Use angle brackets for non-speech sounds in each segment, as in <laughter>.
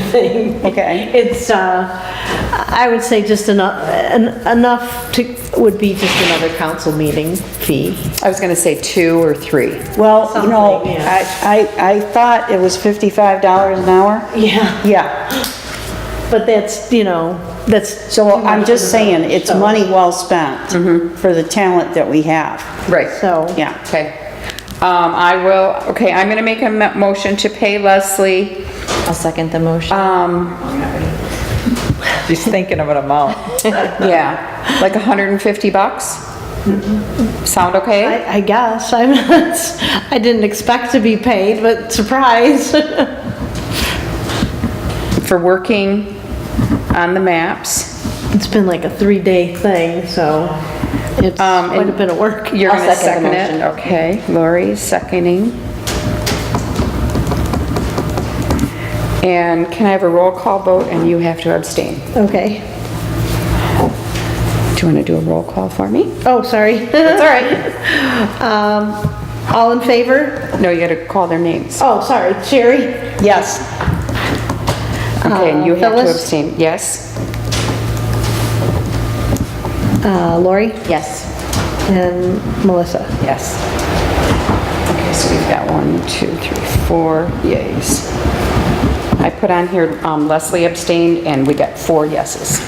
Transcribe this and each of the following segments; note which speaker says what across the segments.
Speaker 1: <laughs> thing.
Speaker 2: Okay.
Speaker 1: It's, uh, I would say just enough, enough to, would be just another council meeting fee.
Speaker 3: I was gonna say two or three.
Speaker 2: Well, you know,
Speaker 1: Something, yeah.
Speaker 2: I, I, I thought it was fifty-five dollars an hour.
Speaker 1: Yeah,
Speaker 2: Yeah,
Speaker 1: but that's, you know, that's,
Speaker 2: so I'm just saying, it's
Speaker 1: So-
Speaker 2: money well spent for the talent that we have.
Speaker 3: Right.
Speaker 1: so.
Speaker 2: Yeah,
Speaker 3: Okay. Um, I will, okay, I'm gonna make a mo- motion to pay Leslie,
Speaker 4: I'll second the motion.
Speaker 3: um,
Speaker 5: She's thinking of an amount.
Speaker 3: yeah, like hundred and fifty bucks? Sound okay?
Speaker 1: I, I guess, <laughs> I'm not, I didn't expect to be paid, but surprise. <laughs>
Speaker 3: For working on the maps.
Speaker 1: It's been like a three-day thing, so it's
Speaker 3: Um,
Speaker 1: quite a
Speaker 3: and
Speaker 1: bit of work.
Speaker 3: You're
Speaker 4: I'll
Speaker 3: gonna
Speaker 4: second the
Speaker 3: second it?
Speaker 4: motion.
Speaker 3: Okay, Lori is seconding. And can I have a roll call vote and you have to abstain?
Speaker 1: Okay.
Speaker 3: Do you wanna do a roll call for me?
Speaker 1: Oh, sorry. That's all right. <laughs> Um, all in favor?
Speaker 3: No, you gotta call their names.
Speaker 1: Oh, sorry, Sherry?
Speaker 2: yes,
Speaker 3: Okay, and you
Speaker 1: Uh,
Speaker 3: have to
Speaker 1: Phyllis?
Speaker 3: abstain, yes?
Speaker 1: Uh, Lori?
Speaker 3: Yes.
Speaker 1: And Melissa?
Speaker 3: Yes. Okay, so we've got one, two, three, four yays. I put on here um, Leslie abstained, and we got four yeses.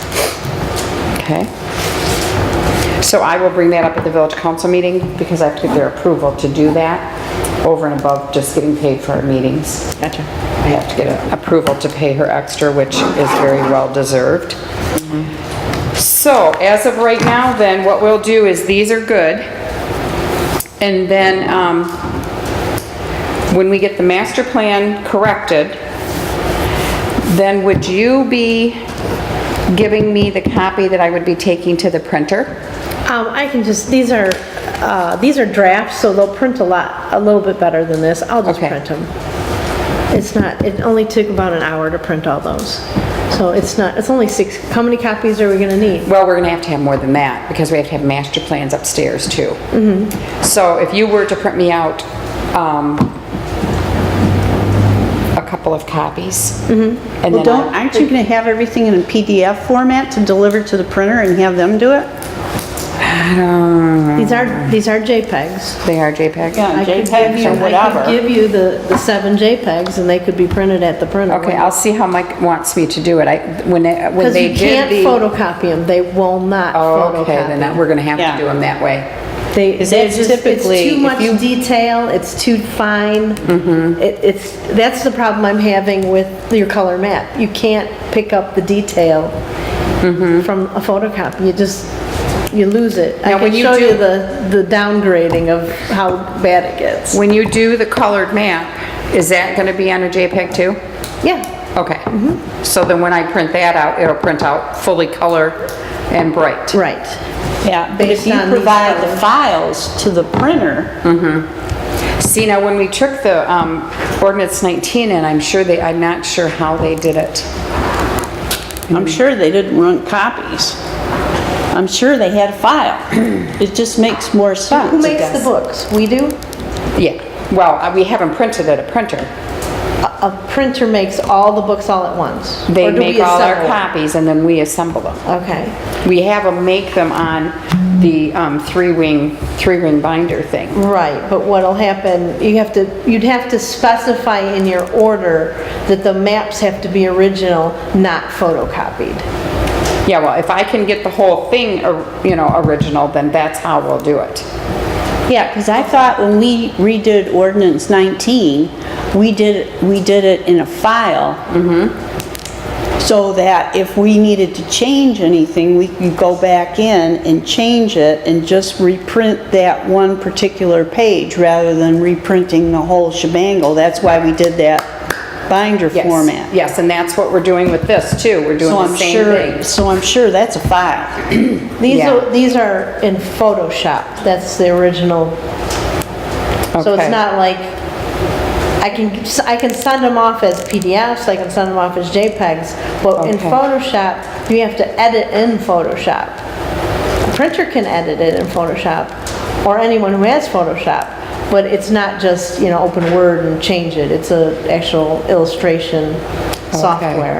Speaker 3: Okay? So I will bring that up at the village council meeting, because I have to get their approval to do that, over and above just getting paid for our meetings. Gotcha. I have to get approval to pay her extra, which is very well deserved. So, as of right now, then, what we'll do is, these are good. And then, um, when we get the master plan corrected, then would you be giving me the copy that I would be taking to the printer?
Speaker 1: Um, I can just, these are, uh, these are drafts, so they'll print a lot, a little bit better than this. I'll just
Speaker 3: Okay.
Speaker 1: print them. It's not, it only took about an hour to print all those. So it's not, it's only six, how many copies are we gonna need?
Speaker 3: Well, we're gonna have to have more than that, because we have to have master plans upstairs too.
Speaker 2: Mm-hmm.
Speaker 3: So if you were to print me out, um, a couple of copies. and
Speaker 2: Mm-hmm. well,
Speaker 3: then
Speaker 2: don't, aren't you gonna have everything in a PDF format to deliver to the printer and have them do it?
Speaker 1: These are, these are JPEGs.
Speaker 3: They are JPEG?
Speaker 1: I could give you- I could give you the, the seven JPEGs and they could be printed at the printer.
Speaker 3: Okay, I'll see how Mike wants me to do it. I, when, they- when
Speaker 1: Because
Speaker 3: they
Speaker 1: you
Speaker 3: did the...
Speaker 1: can't photocopy them, they will not
Speaker 3: Oh, okay, then that-
Speaker 1: photocopy.
Speaker 3: we're gonna have
Speaker 2: Yeah.
Speaker 3: to do them that way.
Speaker 1: They,
Speaker 2: Is
Speaker 1: they're
Speaker 2: that
Speaker 1: just, it's
Speaker 2: typically
Speaker 1: too
Speaker 2: if
Speaker 1: much
Speaker 2: you-
Speaker 1: detail, it's too fine.
Speaker 3: Mm-hmm.
Speaker 1: It, it's, that's the problem I'm having with your color map. You can't pick up the detail from a photocopy, you just, you lose it. I
Speaker 3: Mm-hmm. Now, when
Speaker 1: can
Speaker 3: you
Speaker 1: show you
Speaker 3: do-
Speaker 1: the, the downgrading of how bad it gets.
Speaker 3: When you do the colored map, is that gonna be on a JPEG too?
Speaker 1: Yeah.
Speaker 3: Okay.
Speaker 1: Mm-hmm.
Speaker 3: So then when I print that out, it'll print out fully color and bright.
Speaker 1: Right.
Speaker 2: Yeah, but if
Speaker 1: Based
Speaker 2: you
Speaker 1: on these
Speaker 2: provide the
Speaker 1: colors.
Speaker 2: files to the printer,
Speaker 3: See, now when we took the um, ordinance 19, and I'm sure they, I'm not sure how they did it.
Speaker 2: I'm sure they didn't run copies. I'm sure they had a file. It just makes more sense.
Speaker 1: Who makes the books? We do?
Speaker 3: Yeah, well, uh, we haven't printed at a printer.
Speaker 1: A a printer makes all the books all at once?
Speaker 3: They
Speaker 1: Or do we
Speaker 3: make all our
Speaker 1: assemble?
Speaker 3: copies and then we assemble them.
Speaker 1: Okay,
Speaker 3: We have them make them on the um, three-wing, three-ring binder thing.
Speaker 1: right, but what'll happen, you have to, you'd have to specify in your order that the maps have to be original, not photocopied.
Speaker 3: Yeah, well, if I can get the whole thing, or- you know, original, then that's how we'll do it.
Speaker 2: Yeah, because I thought when we redid ordinance 19, we did, we did it in a file.
Speaker 3: Mm-hmm.
Speaker 2: So that if we needed to change anything, we could go back in and change it and just reprint that one particular page rather than reprinting the whole shebangle. That's why we did that binder
Speaker 3: Yes.
Speaker 2: format.
Speaker 3: Yes, and that's what we're doing with this, too. We're
Speaker 2: So
Speaker 3: doing
Speaker 2: I'm
Speaker 3: the same
Speaker 2: sure,
Speaker 3: thing.
Speaker 2: so I'm sure that's a file.
Speaker 1: These
Speaker 3: Yeah.
Speaker 1: are, these are in Photoshop, that's the original. So
Speaker 3: Okay.
Speaker 1: it's not like, I can, I can send them off as PDFs, I can send them off as JPEGs, but in
Speaker 3: Okay.
Speaker 1: Photoshop, you have to edit in Photoshop. A printer can edit it in Photoshop, or anyone who has Photoshop, but it's not just, you know, open Word and change it, it's a actual illustration. software.